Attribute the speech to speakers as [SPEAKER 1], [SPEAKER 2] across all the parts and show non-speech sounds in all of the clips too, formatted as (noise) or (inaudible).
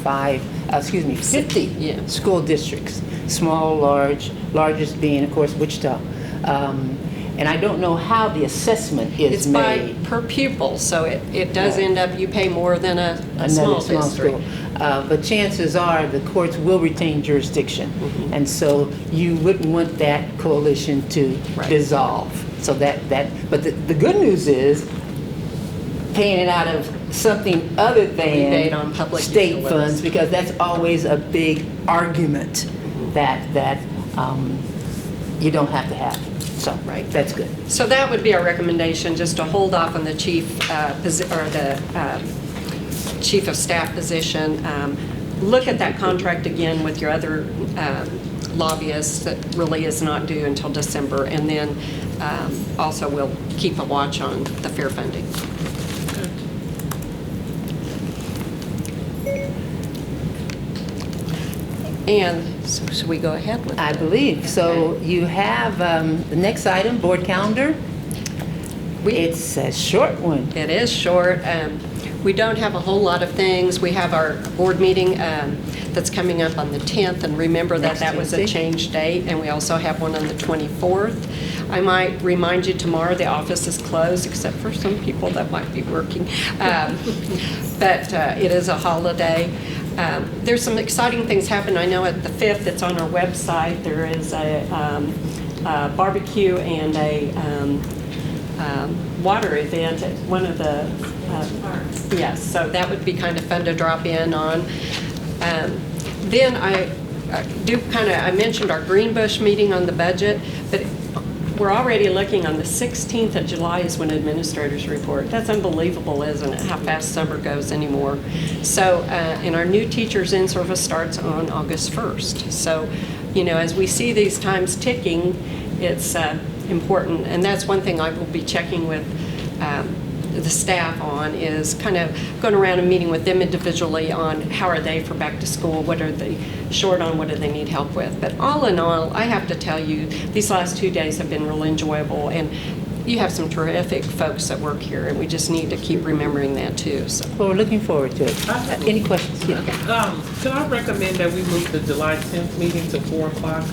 [SPEAKER 1] 55, uh, excuse me, 50
[SPEAKER 2] yeah.
[SPEAKER 1] school districts, small, large, largest being, of course, Wichita. Um, And I don't know how the assessment
[SPEAKER 2] It's
[SPEAKER 1] is
[SPEAKER 2] by,
[SPEAKER 1] made.
[SPEAKER 2] per pupil, so it, it does
[SPEAKER 1] Right.
[SPEAKER 2] end up, you pay more than a, a
[SPEAKER 1] another
[SPEAKER 2] small
[SPEAKER 1] small
[SPEAKER 2] district.
[SPEAKER 1] school. Uh, But chances are, the courts will retain jurisdiction.
[SPEAKER 2] Mm-hmm.
[SPEAKER 1] And so you wouldn't want that coalition to
[SPEAKER 2] Right.
[SPEAKER 1] dissolve. So that, that, but the, the good news is, paying it out of something other than.
[SPEAKER 2] Rebate on public
[SPEAKER 1] State
[SPEAKER 2] utilities.
[SPEAKER 1] funds, because that's always a big argument
[SPEAKER 2] Mm-hmm.
[SPEAKER 1] that, that um, you don't have to have. So,
[SPEAKER 2] Right.
[SPEAKER 1] that's good.
[SPEAKER 2] So that would be our recommendation, just to hold off on the chief, uh, posi- or the um, chief of staff position. Um, Look at that contract again with your other um, lobbyists that really is not due until December. And then um, also we'll keep a watch on the fair funding. And so should we go ahead with
[SPEAKER 1] I believe. So you have um, the next item, board calendar. It's a short one.
[SPEAKER 2] It is short. Um, We don't have a whole lot of things. We have our board meeting um, that's coming up on the 10th, and remember that
[SPEAKER 1] Next
[SPEAKER 2] that was a
[SPEAKER 1] Tuesday.
[SPEAKER 2] change date, and we also have one on the 24th. I might remind you tomorrow, the office is closed, except for some people that might be working.
[SPEAKER 1] (laughs)
[SPEAKER 2] Um, But uh, it is a holiday. Um, There's some exciting things happening. I know at the 5th, it's on our website, there is a um, a barbecue and a um, um, water event at one of the, uh, yes, so that would be kind of fun to drop in on. Um, Then I I do kind of, I mentioned our Green Bush meeting on the budget, but we're already looking on the 16th of July is when administrators report. That's unbelievable, isn't it, how fast summer goes anymore? So, uh, and our new teachers in service starts on August 1st. So, you know, as we see these times ticking, it's uh, important. And that's one thing I will be checking with um, the staff on, is kind of going around and meeting with them individually on how are they for back to school, what are they short on, what do they need help with. But all in all, I have to tell you, these last two days have been real enjoyable, and you have some terrific folks that work here, and we just need to keep remembering that, too, so.
[SPEAKER 1] Well, we're looking forward to it. Uh, Any questions? Yeah.
[SPEAKER 3] Um, can I recommend that we move the July tenth meeting to four o'clock?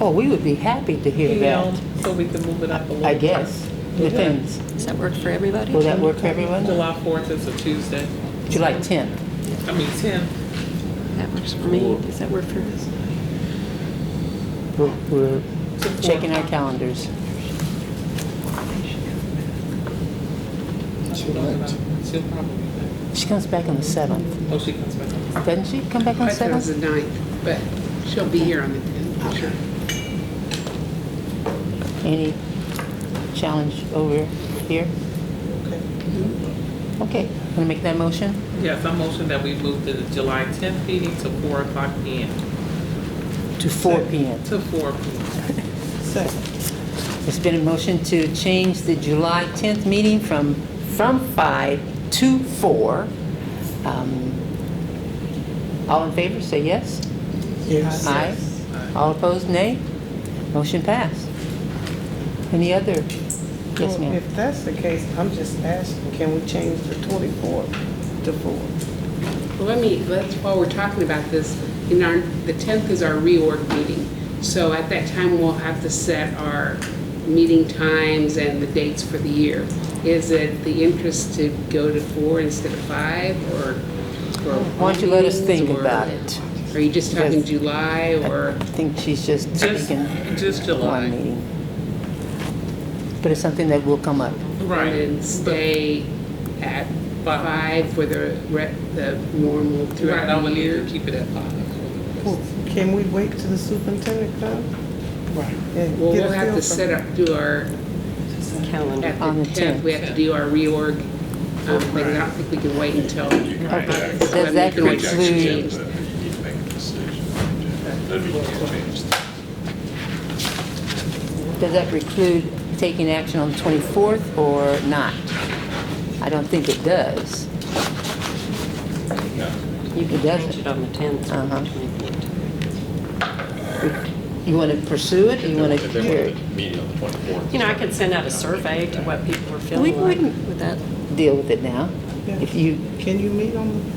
[SPEAKER 1] Oh, we would be happy to hear
[SPEAKER 3] PM,
[SPEAKER 1] that,
[SPEAKER 3] So we can move it up a little.
[SPEAKER 1] I guess. Depends.
[SPEAKER 2] Does that work for everybody?
[SPEAKER 1] Will that work for everyone?
[SPEAKER 3] July fourth is a Tuesday,
[SPEAKER 1] July 10th.
[SPEAKER 3] I mean, ten,
[SPEAKER 2] That works for me. Does that work for us?
[SPEAKER 1] We're- We're checking our calendars.
[SPEAKER 3] she'll probably be back.
[SPEAKER 1] She comes back on the 7th.
[SPEAKER 3] Oh, she comes back.
[SPEAKER 1] Doesn't she come back on
[SPEAKER 4] I
[SPEAKER 1] the
[SPEAKER 4] thought it was
[SPEAKER 1] 7th?
[SPEAKER 4] the ninth, but she'll be here on the 10th, sure.
[SPEAKER 1] Any challenge over here?
[SPEAKER 3] Okay.
[SPEAKER 1] Okay, want to make that motion?
[SPEAKER 3] Yes, I motion that we move the July tenth meeting to four o'clock PM.
[SPEAKER 1] To 4 PM.
[SPEAKER 3] To four PM. Second.
[SPEAKER 1] It's been a motion to change the July 10th meeting from, from 5 to 4. Um, All in favor, say yes.
[SPEAKER 3] Yes.
[SPEAKER 1] Aye. All opposed, nay. Motion passed. Any other? Yes,
[SPEAKER 5] Well,
[SPEAKER 1] ma'am.
[SPEAKER 5] If that's the case, I'm just asking, can we change the 24 to 4?
[SPEAKER 4] Well, let me, let's, while we're talking about this, in our, the 10th is our reorg meeting. So at that time, we'll have to set our meeting times and the dates for the year. Is it the interest to go to four instead of five, or? or
[SPEAKER 1] Why don't you let us think
[SPEAKER 4] meetings, or-
[SPEAKER 1] about it?
[SPEAKER 4] Are you just talking
[SPEAKER 1] Because-
[SPEAKER 4] July, or?
[SPEAKER 1] I think she's just
[SPEAKER 3] Just,
[SPEAKER 1] taking
[SPEAKER 3] just
[SPEAKER 1] one
[SPEAKER 3] July.
[SPEAKER 1] meeting. But it's something that will come up.
[SPEAKER 3] Right.
[SPEAKER 4] And stay at five for the, re- the normal
[SPEAKER 3] Right, I
[SPEAKER 4] throughout the
[SPEAKER 3] would need to
[SPEAKER 4] year?
[SPEAKER 3] keep it at five.
[SPEAKER 5] Can we wait till the superintendent comes?
[SPEAKER 3] Right.
[SPEAKER 5] and
[SPEAKER 4] Well,
[SPEAKER 5] get a
[SPEAKER 4] we'll have
[SPEAKER 5] feel
[SPEAKER 4] to
[SPEAKER 5] for-
[SPEAKER 4] set up, do our,
[SPEAKER 2] Calendar.
[SPEAKER 4] at
[SPEAKER 1] On the
[SPEAKER 4] the 10th, we have to do our reorg. um, thing. I don't think we can wait until.
[SPEAKER 1] Does
[SPEAKER 4] I mean, we
[SPEAKER 1] that
[SPEAKER 4] can wait
[SPEAKER 1] conclude-
[SPEAKER 4] till change.
[SPEAKER 6] You make a decision. Then we can change things.
[SPEAKER 1] Does that preclude taking action on the 24th or not? I don't think it does.
[SPEAKER 2] You can
[SPEAKER 1] It doesn't.
[SPEAKER 2] change it on the 10th or
[SPEAKER 1] Uh-huh.
[SPEAKER 2] the 24th.
[SPEAKER 1] You want to pursue it, or you want to
[SPEAKER 6] If they
[SPEAKER 1] hear
[SPEAKER 6] wanted
[SPEAKER 1] it?
[SPEAKER 6] to meet on the 24th.
[SPEAKER 2] You know, I could send out a survey to what people were
[SPEAKER 1] We
[SPEAKER 2] feeling like
[SPEAKER 1] wouldn't-
[SPEAKER 2] with that.
[SPEAKER 1] Deal with it now.
[SPEAKER 5] Yeah.
[SPEAKER 1] If you
[SPEAKER 5] Can you meet on the